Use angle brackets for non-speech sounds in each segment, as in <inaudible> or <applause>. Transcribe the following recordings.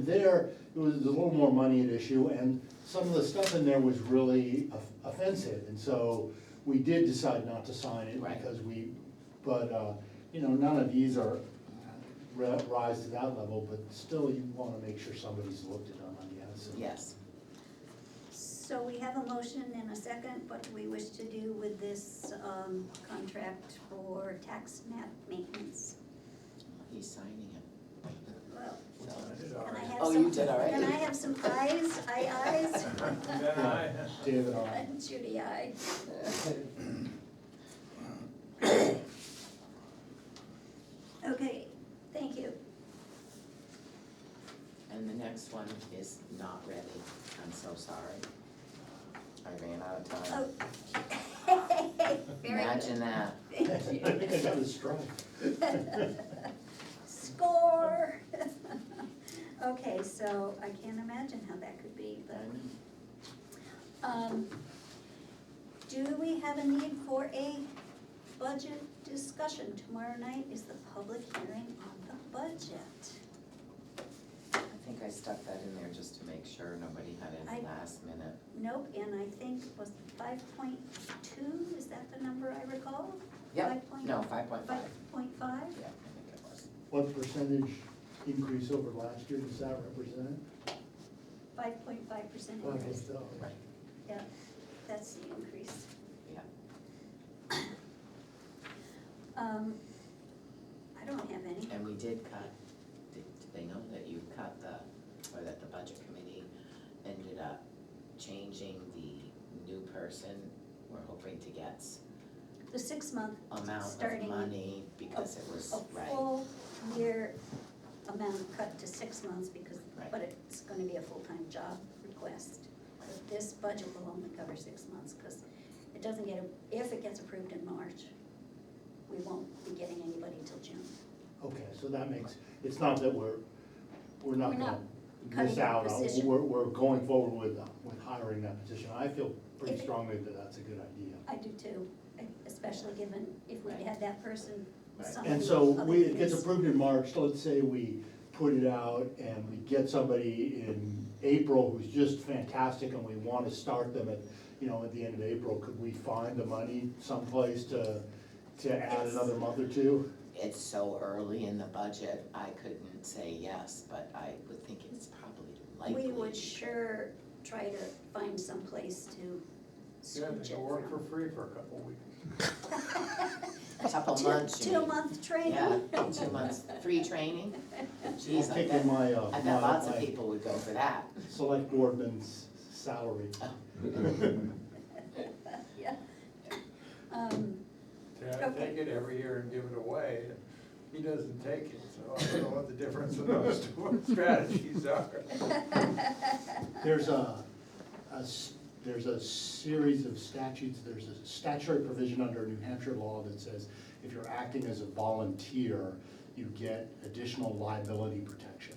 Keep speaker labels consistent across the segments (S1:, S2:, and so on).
S1: there, it was a little more money at issue, and some of the stuff in there was really of- offensive, and so we did decide not to sign it
S2: Right.
S1: because we, but, uh, you know, none of these are, uh, ri- rise to that level, but still you wanna make sure somebody's looked at them, I guess. and-
S2: Yes,
S3: So we have a motion and a second, what do we wish to do with this, um, contract for tax map maintenance?
S2: he's signing it.
S3: Well,
S2: So-
S3: can I have some?
S2: Oh, you did all right.
S3: Can I have some ayes, aye ayes?
S4: Yeah, I-
S1: David, uh, I,
S3: <laughs> Judy, aye. Okay, thank you.
S2: And the next one is not ready, I'm so sorry. I ran out of time.
S3: Oh. <laughs> Very good,
S2: Imagine that.
S3: thank
S1: I
S3: you.
S1: think I got a strike.
S3: Score. Okay, so I can't imagine how that could be, but. Um, Do we have a need for a budget discussion? Tomorrow night is the public hearing on the budget.
S2: I think I stuck that in there just to make sure nobody had
S3: I-
S2: any last minute.
S3: Nope, and I think was five point two, is that the number I recall?
S2: Yep,
S3: Five point-
S2: no, five point five,
S3: Five point five?
S2: yeah, I think it was.
S1: What percentage increase over last year does that represent?
S3: Five point five percent
S1: Well,
S3: increase,
S1: it's, uh,
S2: Right.
S3: yeah, that's the increase.
S2: Yeah.
S3: Um, I don't have any.
S2: And we did cut, did, did they know that you cut the, or that the budget committee ended up changing the new person we're hoping to get
S3: The six month,
S2: amount of
S3: Starting
S2: money because it was,
S3: a
S2: right,
S3: full year amount cut to six months because,
S2: Right.
S3: but it's gonna be a full-time job request. But This budget will only cover six months, cause it doesn't get, if it gets approved in March, we won't be getting anybody till June.
S1: Okay, so that makes, it's not that we're, we're
S3: We're
S1: not
S3: not
S1: gonna miss
S3: cutting the
S1: out, on-
S3: position.
S1: we're, we're going forward with, uh, with hiring that position. I feel pretty
S3: If it-
S1: strongly that that's a good idea.
S3: I do too, especially given if we
S2: Right.
S3: had that person,
S2: Right.
S3: some
S1: And so
S3: other
S1: we, it gets
S3: things.
S1: approved in March, let's say we put it out and we get somebody in April who's just fantastic and we wanna start them at, you know, at the end of April, could we find the money someplace to, to add
S3: Yes.
S1: another month or two?
S2: it's so early in the budget, I couldn't say yes, but I would think it's probably likely.
S3: We would sure try to find some place to
S4: yeah,
S3: switch
S4: they
S3: it
S4: can work for
S3: from.
S4: free for a couple of weeks.
S3: <laughs>
S2: A couple
S3: Two-
S2: months, you mean.
S3: Two-month training.
S2: Yeah,
S3: <laughs>
S2: two months, free training? Jeez,
S1: I'm
S2: I
S1: Taking
S2: bet,
S1: my, uh, my-
S2: I bet lots of
S1: my
S2: people would go for that.
S1: Select boardman's salary.
S3: Yeah. Um,
S4: Yeah, I take it every year and give it away, and he doesn't take it, so I don't know what the difference in those two <laughs> strategies are.
S1: There's a, a s- there's a series of statutes, there's a statutory provision under New Hampshire law that says if you're acting as a volunteer, you get additional liability protection.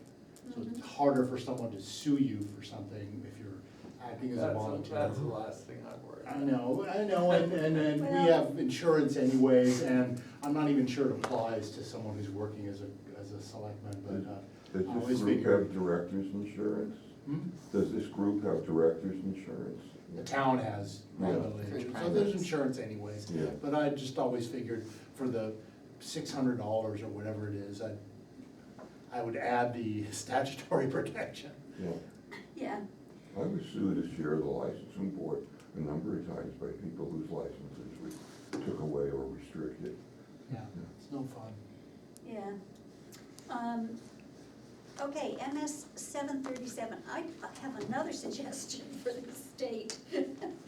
S1: So it's harder for someone to sue you for something if you're acting as a
S4: That's,
S1: volunteer.
S4: that's the last thing I'd worry
S1: I
S4: about.
S1: know, I know, and, and, and we
S3: Well-
S1: have insurance anyways, and I'm not even sure it applies to someone who's working as a, as a selectman, but,
S5: Does
S1: uh, I always
S5: this group
S1: figure.
S5: have director's insurance?
S1: Hmm?
S5: Does this group have director's insurance?
S1: The town has
S5: Yeah.
S1: liability
S2: Through
S1: insurance, so
S2: private.
S1: there's insurance anyways.
S5: Yeah.
S1: But I just always figured for the six hundred dollars or whatever it is, I, I would add the <laughs> statutory protection.
S5: Yeah.
S3: yeah,
S5: I was sued this year, the licensing board, a number of times by people whose licenses we took away or restricted.
S1: Yeah. It's no fun.
S3: yeah. Um, okay, MS seven thirty-seven, I I have another <laughs> suggestion for the state. <laughs>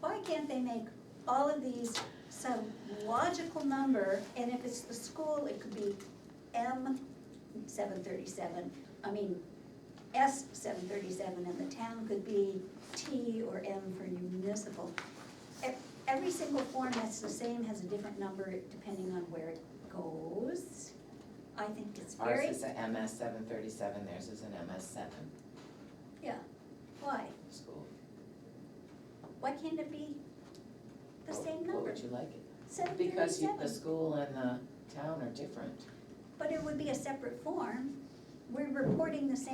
S3: Why can't they make all of these some logical number, and if it's the school, it could be M seven thirty-seven, I mean, S seven thirty-seven, and the town could be T or M for municipal. E- Every single form that's the same has a different number depending on where it goes. I think it's very,
S2: Ours is a MS seven thirty-seven, theirs is an MS seven
S3: yeah, why?
S2: school.
S3: Why can't it be the
S2: What-
S3: same
S2: What
S3: number?
S2: would you like it?
S3: Seven
S2: Because you, the
S3: thirty-seven,
S2: school and the town are different.
S3: but it would be a separate form. We're reporting the same